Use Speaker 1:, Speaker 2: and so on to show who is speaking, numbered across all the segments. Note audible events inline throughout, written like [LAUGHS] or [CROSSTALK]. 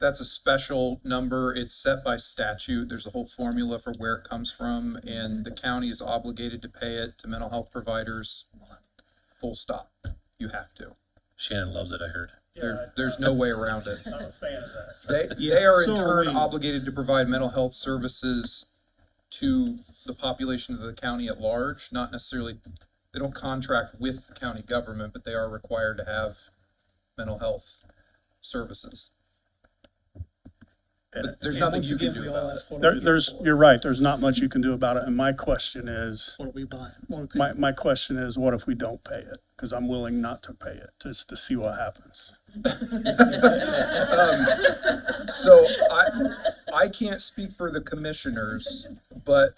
Speaker 1: That's a special number. It's set by statute. There's a whole formula for where it comes from, and the county is obligated to pay it to mental health providers. Full stop. You have to.
Speaker 2: Shannon loves it, I heard.
Speaker 1: There, there's no way around it.
Speaker 3: I'm a fan of that.
Speaker 1: They, they are in
Speaker 4: So are
Speaker 1: turn
Speaker 4: we.
Speaker 1: obligated to provide mental health services to the population of the county at large, not necessarily, they don't contract with the county government, but they are required to have mental health services. But there's
Speaker 4: And
Speaker 1: nothing
Speaker 4: once
Speaker 1: you can
Speaker 4: again,
Speaker 1: do
Speaker 4: we all
Speaker 1: about it.
Speaker 4: ask what are we
Speaker 3: There,
Speaker 4: here
Speaker 3: there's,
Speaker 4: for?
Speaker 3: you're right, there's not much you can do about it, and my question is,
Speaker 4: What are we buying? What are we
Speaker 3: my, my question is, what if we don't pay it? Because I'm willing not to pay it, just to see what happens.
Speaker 1: So I, I can't speak for the commissioners, but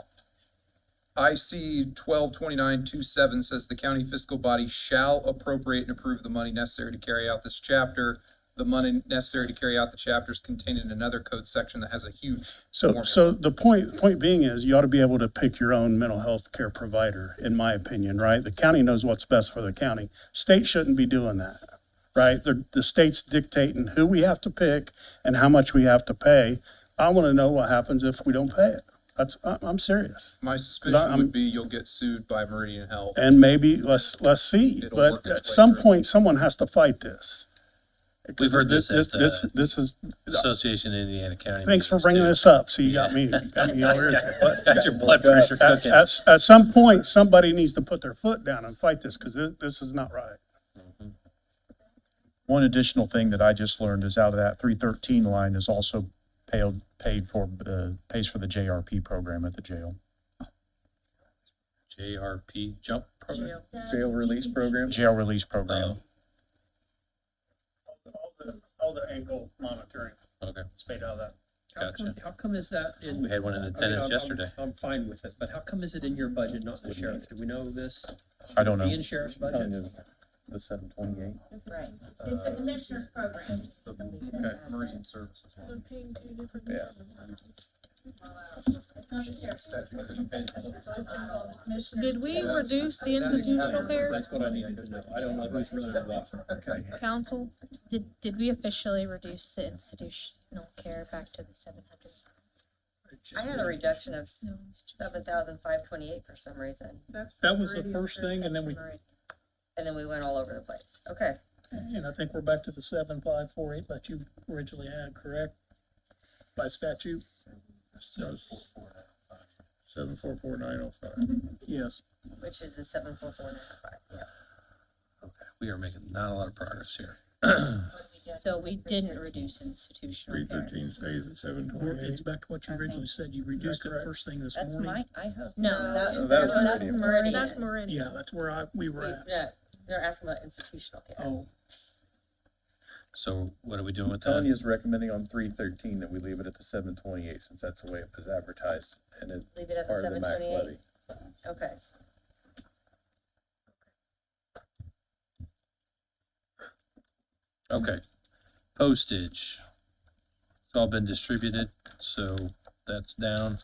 Speaker 1: I see twelve twenty-nine two seven says the county fiscal body shall appropriate and approve the money necessary to carry out this chapter. The money necessary to carry out the chapter is contained in another code section that has a huge.
Speaker 3: So,
Speaker 1: formula.
Speaker 3: so the point, point being is, you ought to be able to pick your own mental health care provider, in my opinion, right? The county knows what's best for the county. State shouldn't be doing that, right? The, the state's dictating who we have to pick and how much we have to pay. I want to know what happens if we don't pay it. That's, I'm, I'm serious.
Speaker 1: My suspicion would be you'll get sued by Meridian Health.
Speaker 3: And maybe, let's, let's see,
Speaker 1: It'll work
Speaker 3: but
Speaker 1: its
Speaker 3: at
Speaker 1: way
Speaker 3: some
Speaker 1: through.
Speaker 3: point, someone has to fight this.
Speaker 2: We've heard this
Speaker 3: This,
Speaker 2: at uh,
Speaker 3: this,
Speaker 2: the
Speaker 3: this is,
Speaker 2: Association of Indiana County.
Speaker 3: thanks for
Speaker 2: meetings,
Speaker 3: bringing
Speaker 2: too.
Speaker 3: this up, so you got me, got me
Speaker 2: [LAUGHS]
Speaker 3: all irritated. But-
Speaker 2: Got your blood pressure
Speaker 3: At,
Speaker 2: cooking.
Speaker 3: at, s- at some point, somebody needs to put their foot down and fight this, because this, this is not right.
Speaker 5: One additional thing that I just learned is out of that three thirteen line is also paid, paid for, uh, pays for the JRP program at the jail.
Speaker 2: JRP jump program.
Speaker 6: Jail release program? Oh.
Speaker 5: Jail release program.
Speaker 3: All the, all the ankle monitoring
Speaker 2: Oh, Okay,
Speaker 3: is paid out of that.
Speaker 4: How come,
Speaker 2: Gotcha.
Speaker 4: how come is that in?
Speaker 2: We had one in
Speaker 4: I mean,
Speaker 2: attendance
Speaker 4: I'm- I'm-
Speaker 2: yesterday.
Speaker 4: I'm fine with it, but how come is it in your budget, not the sheriff? Do we know this?
Speaker 5: I don't
Speaker 4: Be
Speaker 5: know.
Speaker 4: in sheriff's
Speaker 6: Kind
Speaker 4: budget?
Speaker 6: of the seven twenty-eight.
Speaker 7: Right, it's
Speaker 6: Uh,
Speaker 7: the commissioner's program.
Speaker 1: Meridian Services.
Speaker 6: Yeah.
Speaker 7: It's not the sheriff's.
Speaker 8: Did we reduce the institutional care
Speaker 4: That's what I need to know. I don't know who's running what.
Speaker 1: Okay.
Speaker 8: council? Did, did we officially reduce the institutional care back to the seven hundred?
Speaker 7: I had a reduction of seven thousand five twenty-eight for some reason.
Speaker 4: That was the first thing, and then we,
Speaker 7: And then we went all over the place. Okay.
Speaker 4: and I think we're back to the seven, five, four, eight that you originally had, correct? By statute?
Speaker 3: Seven four four nine oh five.
Speaker 4: Mm-hmm. Yes.
Speaker 7: Which is the seven four four nine five.
Speaker 2: We are making not a lot of progress here.
Speaker 8: So we didn't reduce institutional care.
Speaker 3: stays at seven
Speaker 4: It's back to what you originally said. You reduced it
Speaker 3: correct?
Speaker 4: first thing this
Speaker 7: That's
Speaker 4: morning.
Speaker 7: my, I hope.
Speaker 8: No, that
Speaker 7: No,
Speaker 8: was-
Speaker 6: Oh, that was
Speaker 7: Oh, that's
Speaker 6: Meridian.
Speaker 7: Meridian.
Speaker 8: That's
Speaker 4: Yeah,
Speaker 8: Meridian.
Speaker 4: that's where I, we were at.
Speaker 7: Yeah, they're asking about institutional care.
Speaker 4: Oh,
Speaker 2: So what are we doing with that?
Speaker 6: Tanya's recommending on three thirteen that we leave it at the seven twenty-eight, since that's the way it was advertised, and it's
Speaker 7: Leave it at the
Speaker 6: part of the
Speaker 7: seven
Speaker 6: max
Speaker 7: twenty-eight.
Speaker 6: levy.
Speaker 7: Okay.
Speaker 2: Okay. Postage. It's all been distributed, so that's down.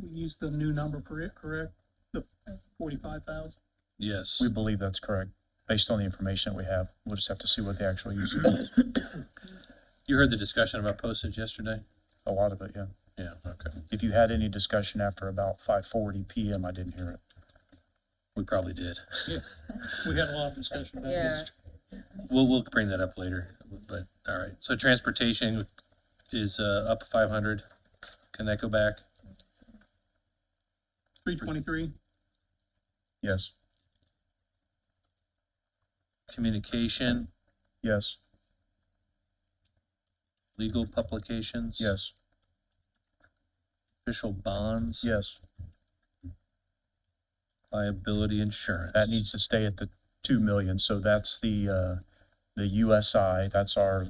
Speaker 4: we used the new number for it, correct? The forty-five thousand?
Speaker 2: Yes.
Speaker 5: We believe that's correct, based on the information that we have. We'll just have to see what the actual use is.
Speaker 2: You heard the discussion about postage yesterday?
Speaker 5: A lot of it, yeah.
Speaker 2: Yeah, okay.
Speaker 5: If you had any discussion after about five forty PM, I didn't hear it.
Speaker 2: We probably did.
Speaker 4: We had a lot of discussion about
Speaker 7: Yeah.
Speaker 4: it.
Speaker 2: We'll, we'll bring that up later, but, all right. So transportation is, uh, up five hundred. Can that go back?
Speaker 4: Three twenty-three?
Speaker 5: Yes,
Speaker 2: Communication,
Speaker 5: yes,
Speaker 2: legal publications?
Speaker 5: yes,
Speaker 2: Official bonds?
Speaker 5: yes.
Speaker 2: Liability insurance?
Speaker 5: That needs to stay at the two million, so that's the, uh, the USI, that's our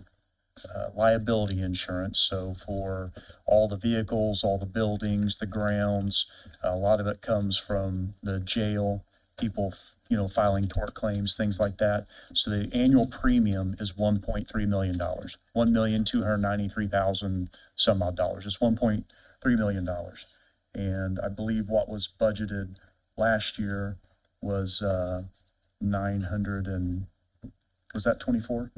Speaker 5: uh, liability insurance, so for all the vehicles, all the buildings, the grounds, a lot of it comes from the jail, people, f- you know, filing tort claims, things like that. So the annual premium is one point three million dollars, one million two hundred ninety-three thousand some odd dollars, it's one point three million dollars. And I believe what was budgeted last year was, uh, nine hundred and, was that twenty-four?